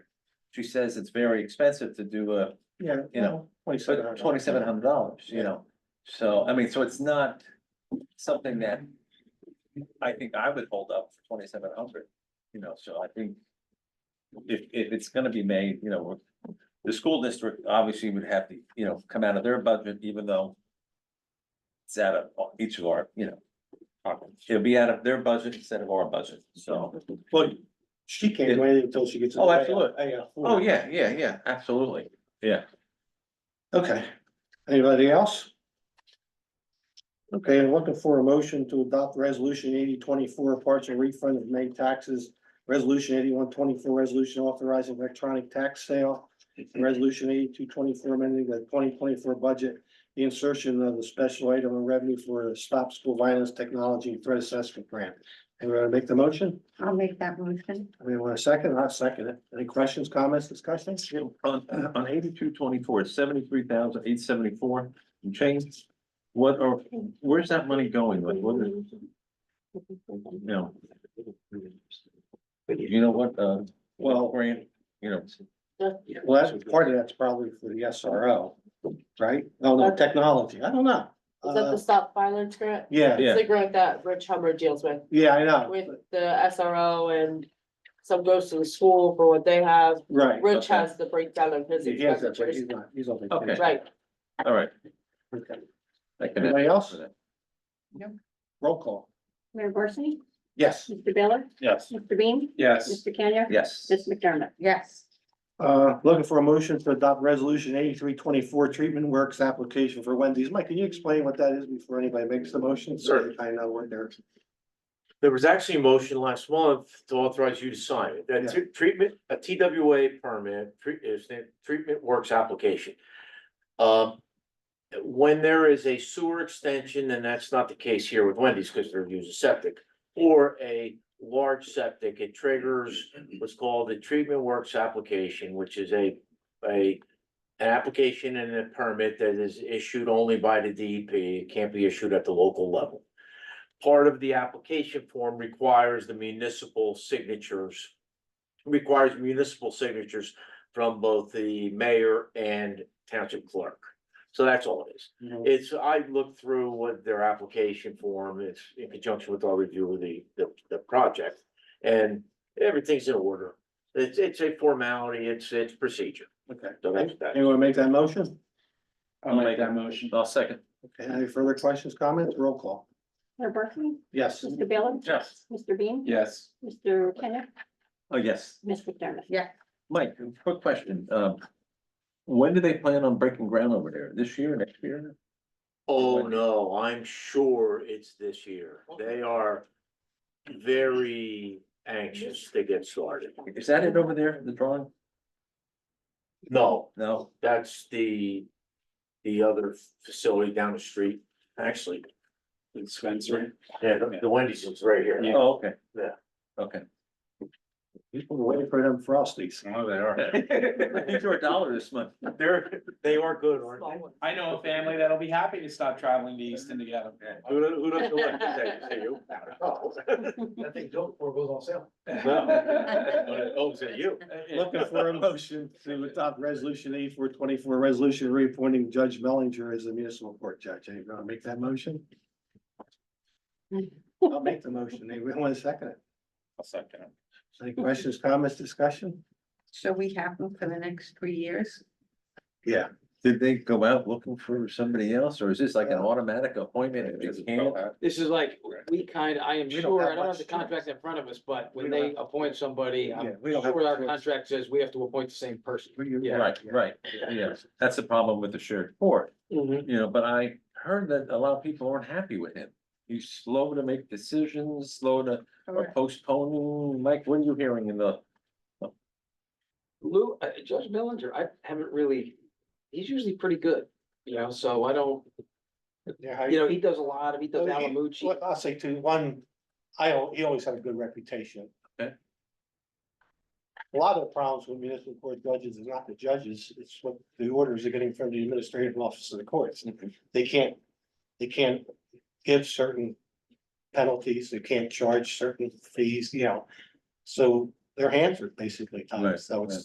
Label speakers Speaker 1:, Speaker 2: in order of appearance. Speaker 1: she says it's very expensive to do a
Speaker 2: Yeah.
Speaker 1: You know,
Speaker 2: Twenty-seven hundred.
Speaker 1: twenty-seven hundred dollars, you know? So, I mean, so it's not something that I think I would hold up for twenty-seven hundred, you know, so I think if, if it's gonna be made, you know, the school district obviously would have to, you know, come out of their budget, even though it's out of each of our, you know, pockets. it'll be out of their budget instead of our budget, so.
Speaker 2: Well, she can't wait until she gets.
Speaker 1: Oh, absolutely.
Speaker 2: Yeah.
Speaker 1: Oh, yeah, yeah, yeah, absolutely.
Speaker 2: Oh, Okay, anybody else? Okay, I'm looking for a motion to adopt resolution eighty twenty-four, partial refund of May taxes. Resolution eighty-one twenty-four, resolution authorizing electronic tax sale. and Resolution eighty-two twenty-four, amending the twenty twenty-four budget, the insertion of the special item of revenue for the Stop School Violence Technology Threat Assessment Grant. Anyone wanna make the motion?
Speaker 3: I'll make that motion.
Speaker 2: Anyone want a second? I'll second it. Any questions, comments, discussions?
Speaker 1: On, on eighty-two twenty-four, it's seventy-three thousand eight seventy-four and change. What are, where's that money going? Like, what is, you know? You know what, uh, well, grant, you know,
Speaker 2: Well, that's, part of that's probably for the SRO, right? Oh, No, no, technology, I don't know.
Speaker 4: Is that
Speaker 2: Uh,
Speaker 4: the stop violence grant?
Speaker 2: Yeah,
Speaker 1: yeah.
Speaker 4: It's the grant that Rich Hummer deals with,
Speaker 2: yeah, I know,
Speaker 4: with the SRO and some goes to the school for what they have.
Speaker 2: right.
Speaker 4: Rich
Speaker 1: okay.
Speaker 4: has the breakdown of his
Speaker 2: He has that, but he's
Speaker 4: expenditures.
Speaker 2: not, he's on
Speaker 1: Okay.
Speaker 2: vacation.
Speaker 4: Right,
Speaker 1: all right.
Speaker 2: Okay.
Speaker 1: I can-
Speaker 2: Anybody else? Roll call.
Speaker 3: Mayor Barsney?
Speaker 2: Yes.
Speaker 3: Mr. Baylor?
Speaker 2: Yes.
Speaker 3: Mr. Bean?
Speaker 2: Yes.
Speaker 3: Mr. Kenya?
Speaker 1: Yes.
Speaker 3: Ms. McDermott? Yes.
Speaker 2: Uh, looking for a motion to adopt resolution eighty-three twenty-four treatment works application for Wendy's. Mike, can you explain what that is before anybody makes the motion?
Speaker 5: Sure.
Speaker 2: I know what they're,
Speaker 5: There was actually a motion last month to authorize you to sign it, that tr- treatment, a TWA permit, tre- is the treatment works application. Um, when there is a sewer extension, and that's not the case here with Wendy's, because they're using septic, or a large septic, it triggers what's called a treatment works application, which is a, a an application and a permit that is issued only by the DEP, it can't be issued at the local level part of the application form requires the municipal signatures. Requires municipal signatures from both the mayor and township clerk. So that's all it is.
Speaker 2: you know,
Speaker 5: It's, I looked through what their application form is in conjunction with our review of the, the, the project. And everything's in order. It's, it's a formality, it's, it's procedure. So
Speaker 2: okay.
Speaker 5: that's that.
Speaker 2: Anyone make that motion?
Speaker 1: I'll make that motion. I'll second.
Speaker 2: Okay, any further questions, comments? Roll call.
Speaker 3: Mayor Barsney?
Speaker 2: Yes.
Speaker 3: Mr. Baylor?
Speaker 1: Yes.
Speaker 3: Mr. Bean?
Speaker 1: Yes.
Speaker 3: Mr. Kenya?
Speaker 1: Oh, yes.
Speaker 3: Ms. McDermott? Yes.
Speaker 1: Mike, quick question. Um, when do they plan on breaking ground over there? This year, next year?
Speaker 5: Oh,
Speaker 1: Wendy.
Speaker 5: no, I'm sure it's this year. They are very anxious to get started.
Speaker 1: Is that it over there, the drawing?
Speaker 5: No,
Speaker 1: No?
Speaker 5: that's the, the other facility down the street, actually.
Speaker 6: Spencer.
Speaker 5: Yeah, the- the Wendy's is right here.
Speaker 6: Yeah.
Speaker 1: Oh, okay.
Speaker 5: Yeah.
Speaker 1: Okay.
Speaker 2: People are waiting for them frosties.
Speaker 6: Oh, they are.
Speaker 1: These are a dollar this month.
Speaker 5: They're, they are good, aren't
Speaker 4: small
Speaker 5: they?
Speaker 4: one.
Speaker 6: I know a family that'll be happy to stop traveling to Easton together.
Speaker 5: Who, do- who doesn't like that? Say you.
Speaker 6: That thing goes before it goes on sale.
Speaker 5: Oh, is it you?
Speaker 2: Looking for a motion to adopt resolution eighty-four twenty-four, resolution reappointing Judge Mellinger as the municipal court judge. Anyone want to make that motion? I'll make the motion. Anyone want to second it?
Speaker 6: I'll second it.
Speaker 2: Any questions, comments, discussion?
Speaker 7: So we have them for the next three years?
Speaker 2: Yeah.
Speaker 1: Did they go out looking for somebody else, or is this like an automatic appointment? if they can't?
Speaker 8: This is like, we kind of, I am
Speaker 2: We don't
Speaker 8: sure,
Speaker 2: have
Speaker 8: I don't
Speaker 2: much
Speaker 8: have the contract in front of us, but
Speaker 2: We
Speaker 8: when
Speaker 2: don't
Speaker 8: they appoint somebody,
Speaker 2: Yeah,
Speaker 8: I'm
Speaker 2: we don't have
Speaker 8: sure our
Speaker 2: choice.
Speaker 8: contract says we have to appoint the same person. Yeah.
Speaker 1: Right, right, yes, that's the problem with the shared court,
Speaker 2: Mm-hmm.
Speaker 1: you know, but I heard that a lot of people aren't happy with him. He's slow to make decisions, slow to or postponing, Mike, what are you hearing in the?
Speaker 8: Lou, uh, Judge Millinger, I haven't really, he's usually pretty good, you know, so I don't,
Speaker 2: Yeah,
Speaker 8: you
Speaker 2: I-
Speaker 8: know, he does a lot of, he does
Speaker 2: Well, he-
Speaker 8: Alamucci.
Speaker 2: Well, I'll say to one, I, al- he always had a good reputation.
Speaker 1: Okay.
Speaker 2: A lot of the problems with municipal court judges is not the judges, it's what the orders are getting from the administrative office of the courts. They can't, they can't give certain penalties, they can't charge certain fees, you know. So their hands are basically tied,
Speaker 1: Right,
Speaker 2: so it's